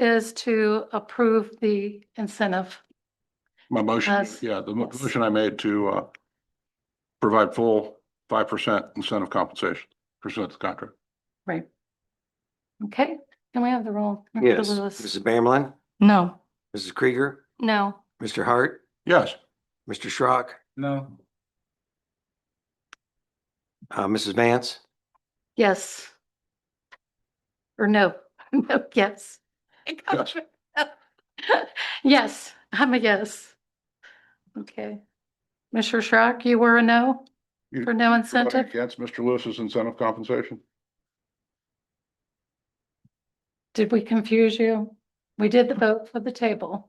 is to approve the incentive. My motion, Us. yeah, the mo- Yes. motion I made to uh provide full five percent incentive compensation pursuant to the contract. Okay, can we have the roll? Mr. Yes, Lewis? Mrs. Bamlin, No, Mrs. Krieger, no. Mr. Hart, Yes, Mr. Schrock, No. uh, Mrs. Vance, Yes. Or no, no, yes. Yes. Yes, I'm a yes. Okay. Mr. Schrock, you were a no? You- For no Voting incentive? against Mr. Lewis's incentive compensation. Did we confuse you? We did the vote for the table.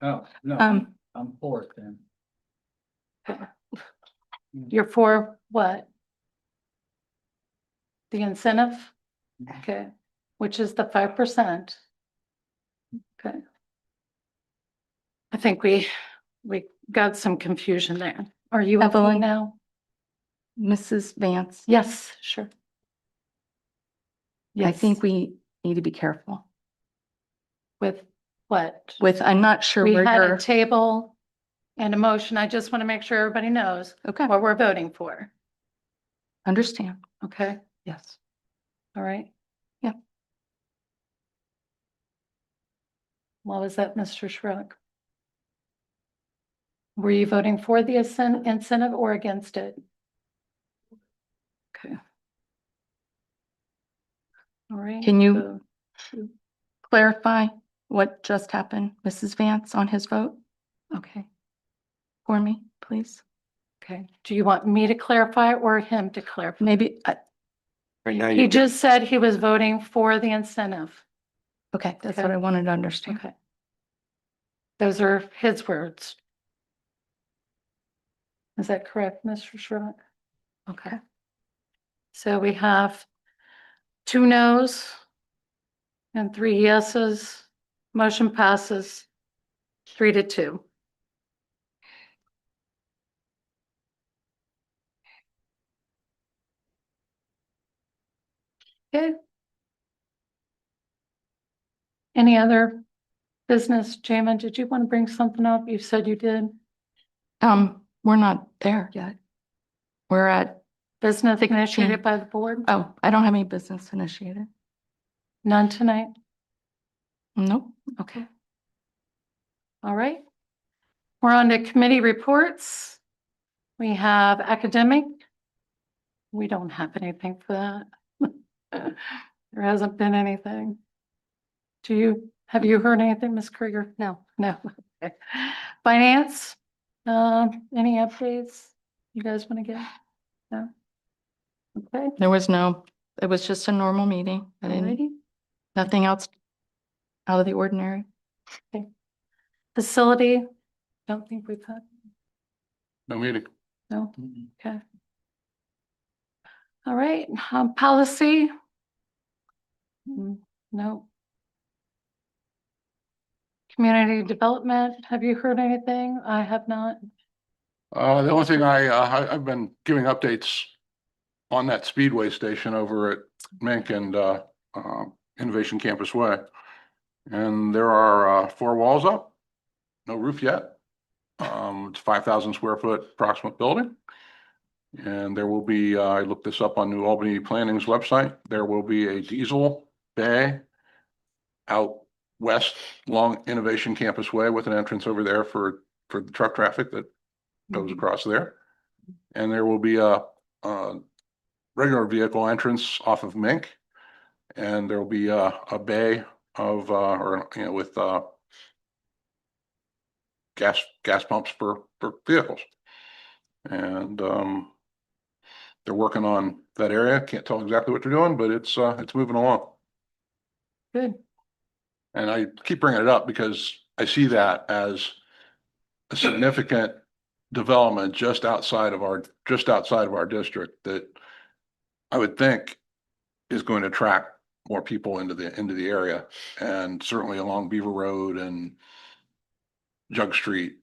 Oh, no, Um, I'm for it then. you're for what? The incentive? Mm-hmm. Mhm. Okay, which is the five percent. Okay. I think we, we got some confusion there. Are you okay Evelyn? now? Mrs. Vance? Yes, sure. I Yes. think we need to be careful With what? with, I'm not sure We where had a you're, table and a motion. I just want to make sure everybody knows okay, what we're voting for. understand, Okay, yes. all right? Yeah. What was that, Mr. Schrock? Were you voting for the incen- incentive or against it? Okay. All right. Can you- so- Clarify what just happened, Mrs. Vance on his vote Okay. for me, please. Okay, do you want me to clarify or him to clarify? Maybe, uh, right now, He you, just said he was voting for the incentive. okay, that's Okay. what I wanted to understand. Okay. Those are his words. Is that correct, Mr. Schrock? Okay. So we have two noes and three yeses. Motion passes three to two. Okay. Any other business? Jamin, did you want to bring something up? You said you did. Um, we're not there yet. We're at, Business Sixteen. initiated by the board? oh, I don't have any business initiated. None tonight? Nope. Okay. All right. We're on to committee reports. We have academic. We don't have anything for that. There hasn't been anything. Do you, have you heard anything, Ms. Krieger? No, no. Okay. Finance, um, any updates you guys want to give? No? Okay. There was no, it was just a normal meeting. I didn't, Alrighty. nothing else out of the ordinary. Facility, don't think we've had, No meeting. no. All right, um, policy. Mm, No. Community development, have you heard anything? I have not. Uh, the only thing I, uh, I, I've been giving updates on that Speedway station over at Mink and, uh, um, Innovation Campus Way. And there are, uh, four walls up, no roof yet. Um, it's five thousand square foot approximate building. And there will be, uh, I looked this up on New Albany Planning's website, there will be a diesel bay out west along Innovation Campus Way with an entrance over there for, for the truck traffic that goes across there. And there will be a, a regular vehicle entrance off of Mink. And there will be a, a bay of, uh, or, you know, with, uh, gas, gas pumps for, for vehicles. And, um, they're working on that area. Can't tell exactly what they're doing, but it's, uh, it's moving along. Good. And I keep bringing it up because I see that as a significant development just outside of our, just outside of our district that I would think is going to attract more people into the, into the area and certainly along Beaver Road and Jug Street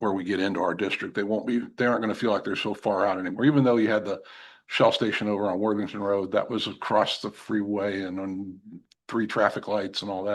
where we get into our district. They won't be, they aren't going to feel like they're so far out anymore, even though you had the Shell station over on Worthington Road, that was across the freeway and on three traffic lights and all that.